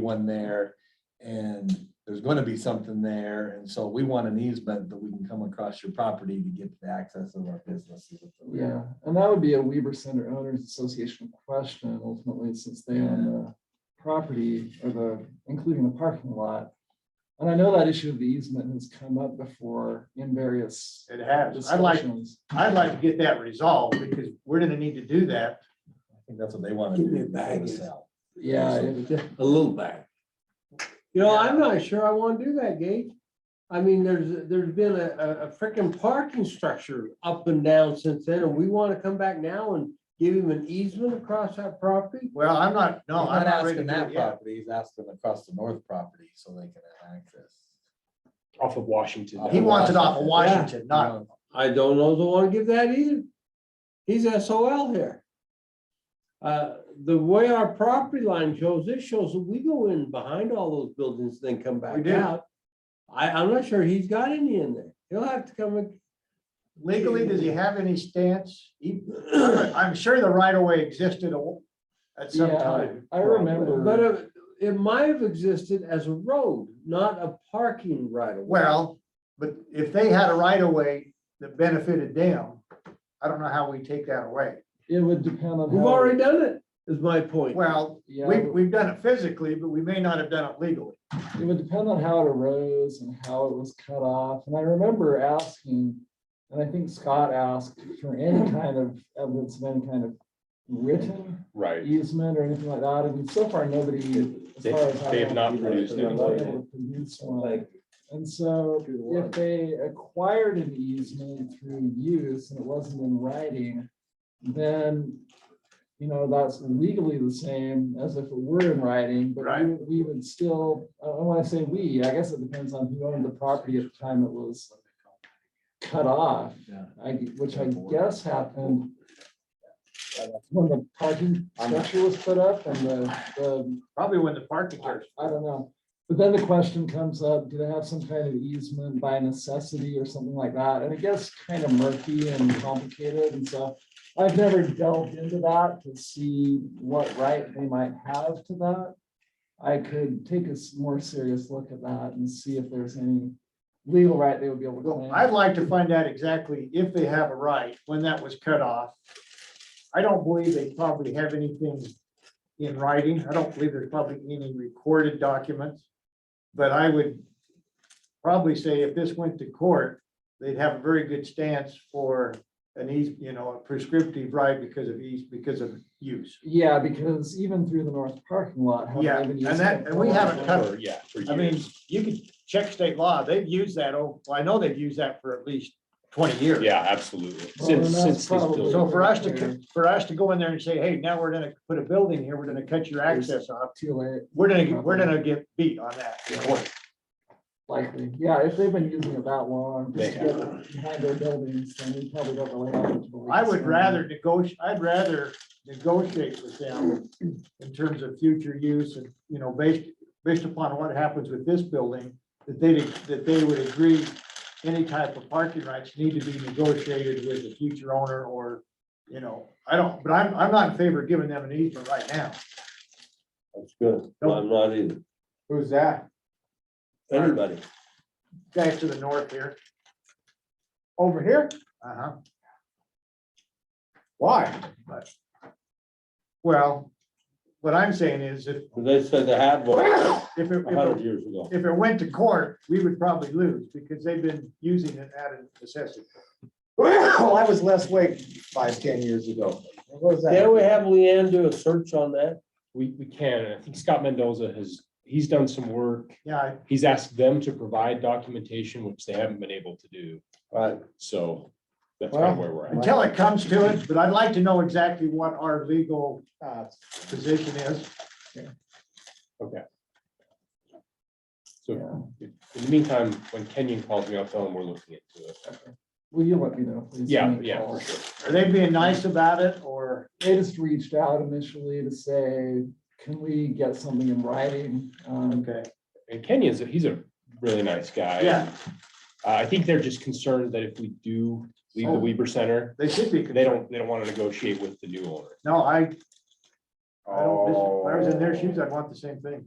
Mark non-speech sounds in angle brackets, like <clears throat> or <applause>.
one there. And there's gonna be something there, and so we want an easement that we can come across your property to get the access of our businesses. Yeah, and that would be a Weaver Center Owners Association question ultimately, since they own the property or the, including the parking lot. And I know that issue of the easement has come up before in various It has. I'd like, discussions. I'd like to get that resolved because we're gonna need to do that. I think that's what they wanna do. Give me a before the bag. sale. Yeah, it- a little back. You know, I'm not sure I wanna do that, Gage. I mean, there's, there's been a, a, a frickin' parking structure up and down since then, and we wanna come back now and give him an easement across that property? Well, I'm not, no, He's I'm not not ready to asking do it that yet. property, he's asking across the north property so they can have access. off of Washington. Off He of wants it off of Washington. Washington, not, You know, I don't know, if I wanna give that either. He's SOL here. Uh, the way our property line shows, this shows that we go in behind all those buildings, then come back do. out. I, I'm not sure he's got any in there. He'll have to come and legally, does he have any stance? He- <clears throat> I'm sure the right of way existed a- at some yeah, time. I But uh, remember, it, it might have existed as a road, not a parking right of way. Well, but if they had a right of way that benefited them, I don't know how we take that away. it would depend on. We've how- already done it, is my point. Well, Yeah, we, we've done it physically, but we may not have done it legally. it would depend on how it arose and how it was cut off. And I remember asking, and I think Scott asked for any kind of evidence of any kind of written Right. easement or anything like that, and so far, nobody. as They- far as I they have know, not they're produced not anything. able to produce one. And so if they acquired an easement through use and it wasn't in writing, then, you know, that's legally the same as if it were in writing, but we- we would still, I don't want to say we, I guess it depends on who owned the property at the time it was cut off. Yeah. I, which I guess happened uh, when the parking structure was put up and the, the, Probably when the parking lot. I don't know. But then the question comes up, do they have some kind of easement by necessity or something like that? And it gets kind of murky and complicated, and so I've never delved into that to see what right they might have to that. I could take a s- more serious look at that and see if there's any legal right they would be able to Well, claim. I'd like to find out exactly if they have a right, when that was cut off. I don't believe they probably have anything in writing. I don't believe there's probably any recorded documents. But I would probably say if this went to court, they'd have a very good stance for an eas, you know, a prescriptive right because of ease, because of use. Yeah, because even through the north parking lot. haven't Yeah, even and used that- it and we for- haven't cut- For- Yeah. for I mean, years. you could check state law. They've used that, oh, well, I know they've used that for at least twenty years. Yeah, absolutely. Well, Since, and that's since this probably- building, So for us to, for us to go in there and say, hey, now we're gonna put a building here, we're gonna cut your access off, Too late, we're gonna, we're gonna get beat on that. in court. likely. Yeah, if they've been using it that long, They just to get behind their buildings, then we probably don't really have. much of a legal I would standing. rather negotiate, I'd rather negotiate with them in terms of future use and, you know, based, based upon what happens with this building, that they, that they would agree any type of parking rights need to be negotiated with the future owner or, you know, I don't, but I'm, I'm not in favor of giving them an easement right now. That's good. No, I'm not either. Who's that? Everybody. guys to the north here. Over here? Uh-huh. Why? But- Well, what I'm saying is if, They said they had one a if it, if hundred it- years ago. if it went to court, we would probably lose because they've been using it out of necessity. Well, <laughs> I was less weight five, ten years ago. What was Can we have Leanne do a search on that? we, we can, and I think Scott Mendoza has, he's done some work. Yeah, He's asked them to provide documentation, which they haven't been able to do. Right. So that's kind of where we're at. until it comes to it, but I'd like to know exactly what our legal Uh, position is. So in the meantime, when Kenyon calls me, I'll tell him we're looking into it. Will you let me know? please? Yeah, Any yeah, calls? for sure. Are they being nice about it or? They just reached out initially to say, can we get something in writing? Um, Okay, And Kenyon's, he's a really nice guy. Yeah. Uh, I think they're just concerned that if we do leave Oh. the Weber Center, they should be. they don't, they don't want to negotiate with the new owner. No, I, I don't, dis- if I was in their shoes, I'd want the same thing.